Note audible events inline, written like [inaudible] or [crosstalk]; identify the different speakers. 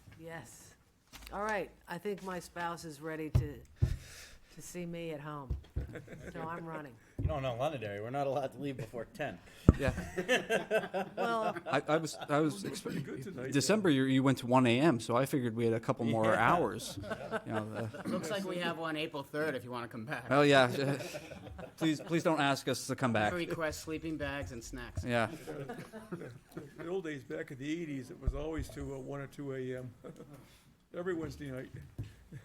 Speaker 1: Yes. All right, I think my spouse is ready to, to see me at home, so I'm running.
Speaker 2: You don't know Londonderry. We're not allowed to leave before ten.
Speaker 3: Yeah,
Speaker 1: Well,
Speaker 3: I, I was, I was expecting,
Speaker 4: Pretty good tonight.
Speaker 3: December, you, you went to one AM, so I figured we had a couple more hours. You know, the-
Speaker 5: Looks like we have one April 3rd if you want to come back.
Speaker 3: Well, yeah, please, please don't ask us to come back.
Speaker 5: Request sleeping bags and snacks.
Speaker 3: Yeah,
Speaker 4: In the old days, back in the eighties, it was always to uh, one or two AM, [laughs] every Wednesday night.